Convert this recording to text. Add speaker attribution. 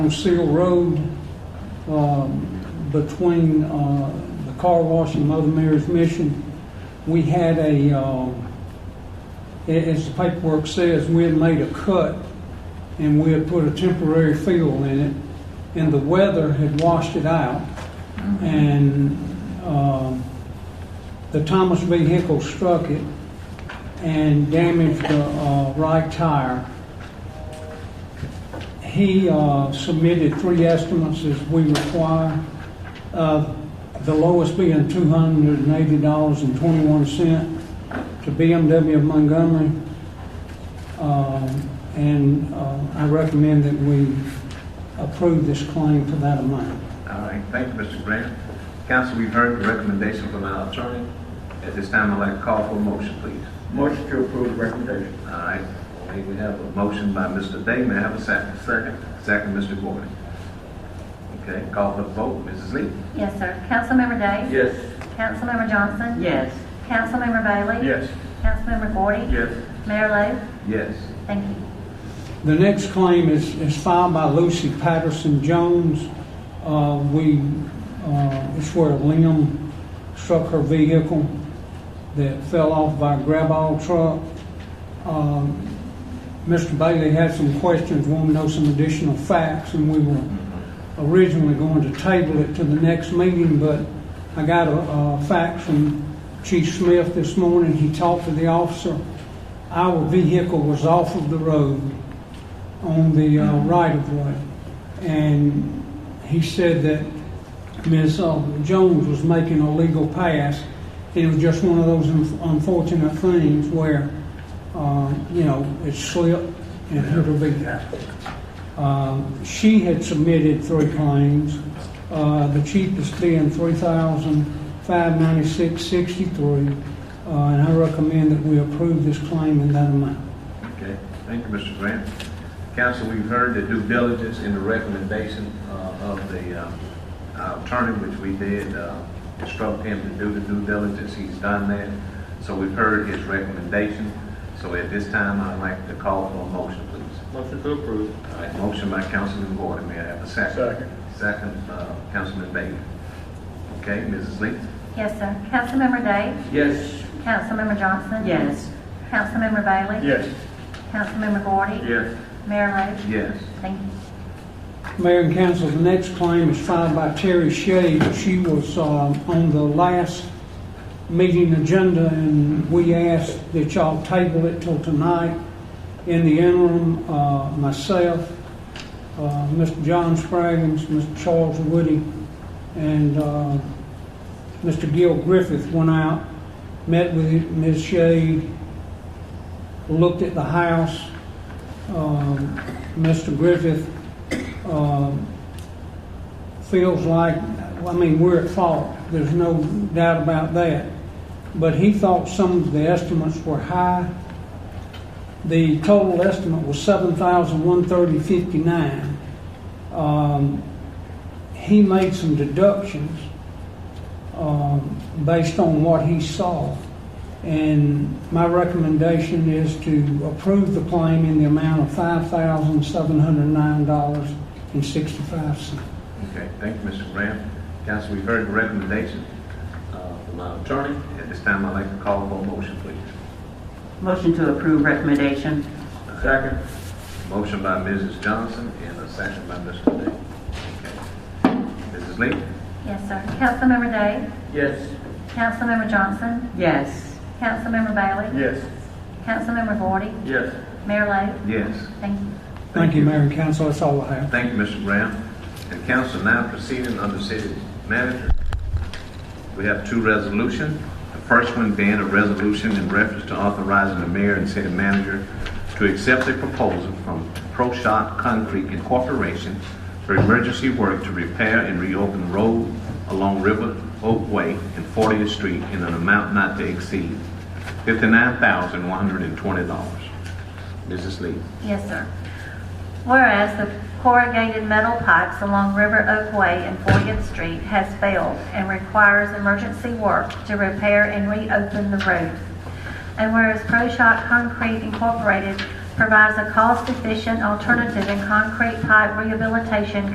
Speaker 1: Seal Road um, between uh, the car wash and Mother Mary's Mission. We had a, um, a- as the paperwork says, we had made a cut and we had put a temporary field in it, and the weather had washed it out. And um, the Thomas vehicle struck it and damaged the uh, right tire. He uh, submitted three estimates as we require, uh, the lowest being $280.21 to BMW of Montgomery. Um, And uh, I recommend that we approve this claim for that amount.
Speaker 2: All right, thank you, Mr. Grant. Council, we've heard the recommendation from our attorney. At this time, I'd like to call for a motion, please.
Speaker 3: Motion to approve the recommendation.
Speaker 2: All right, okay, we have a motion by Mr. Day, may I have a second? Second. Second, Mr. Gordon. Okay, call for the vote, Mrs. Lee?
Speaker 4: Yes, sir. Councilmember Day?
Speaker 3: Yes.
Speaker 4: Councilmember Johnson?
Speaker 5: Yes.
Speaker 4: Councilmember Bailey?
Speaker 3: Yes.
Speaker 4: Councilmember Gordy?
Speaker 3: Yes.
Speaker 4: Mayor
Speaker 2: Yes.
Speaker 4: Lo? Thank you.
Speaker 1: The next claim is, is filed by Lucy Patterson Jones. Uh, we, uh, it's where a limb struck her vehicle that fell off by a grab-all truck. Um, Mr. Bailey had some questions, wanted to know some additional facts, and we were originally going to table it to the next meeting, but I got a, a fax from Chief Smith this morning. He talked to the officer. Our vehicle was off of the road on the uh, right of way. And he said that Ms. uh, Jones was making a legal pass. It was just one of those un- unfortunate things where, uh, you know, it slipped and hurt her vehicle. Um, She had submitted three claims, uh, the cheapest being three thousand five ninety-six sixty-three. uh, And I recommend that we approve this claim in that amount.
Speaker 2: Okay, thank you, Mr. Grant. Council, we've heard the due diligence in the recommendation uh, of the uh, our attorney, which we did uh, instruct him to do the due diligence. He's done that. So we've heard his recommendation. So at this time, I'd like to call for a motion, please.
Speaker 3: Motion to approve.
Speaker 2: All right, motion by Councilman Gordon, may I have a second?
Speaker 3: Second.
Speaker 2: Second, uh, Councilman Bailey. Okay, Mrs. Lee?
Speaker 4: Yes, sir. Councilmember Day?
Speaker 3: Yes.
Speaker 4: Councilmember Johnson?
Speaker 5: Yes.
Speaker 4: Councilmember Bailey?
Speaker 3: Yes.
Speaker 4: Councilmember Gordy?
Speaker 3: Yes.
Speaker 4: Mayor Lo?
Speaker 2: Yes.
Speaker 4: Thank you.
Speaker 1: Mayor and council, the next claim is filed by Terry Shea. She was uh, on the last meeting agenda, and we asked that y'all table it till tonight. In the interim, uh, myself, uh, Mr. John Spraggins, Mr. Charles Woody, and uh, Mr. Gil Griffith went out, met with Ms. Shea, looked at the house. Um, Mr. Griffith um, feels like, I mean, we're at fault. There's no doubt about that. But he thought some of the estimates were high. The total estimate was seven thousand one thirty fifty-nine. Um, he made some deductions, um, based on what he saw. And my recommendation is to approve the claim in the amount of five thousand seven hundred nine dollars and sixty-five cents.
Speaker 2: Okay, thank you, Mr. Graham. Council, we've heard the recommendation uh, from our attorney. At this time, I'd like to call for a motion, please.
Speaker 5: Motion to approve recommendation.
Speaker 3: Second.
Speaker 2: Motion by Mrs. Johnson and a second by Mr. Day. Okay. Mrs. Lee?
Speaker 4: Yes, sir. Councilmember Day?
Speaker 3: Yes.
Speaker 4: Councilmember Johnson?
Speaker 5: Yes.
Speaker 4: Councilmember Bailey?
Speaker 3: Yes.
Speaker 4: Councilmember Gordy?
Speaker 3: Yes.
Speaker 4: Mayor Lo?
Speaker 2: Yes.
Speaker 4: Thank you.
Speaker 1: Thank you, Mayor and Council, that's all I have.
Speaker 2: Thank you, Mr. Graham. And council now proceeding under city manager. We have two resolutions. The first one being a resolution in reference to authorizing the mayor and city manager to accept a proposal from Pro Shot Concrete Incorporation for emergency work to repair and reopen road along River Oak Way and 40th Street in an amount not to exceed $59,120. Mrs. Lee.
Speaker 4: Yes, sir. Whereas the corrugated metal pipes along River Oak Way and 40th Street has failed and requires emergency work to repair and reopen the road. And whereas ProShot Concrete Incorporated provides a cost-efficient alternative in concrete pipe rehabilitation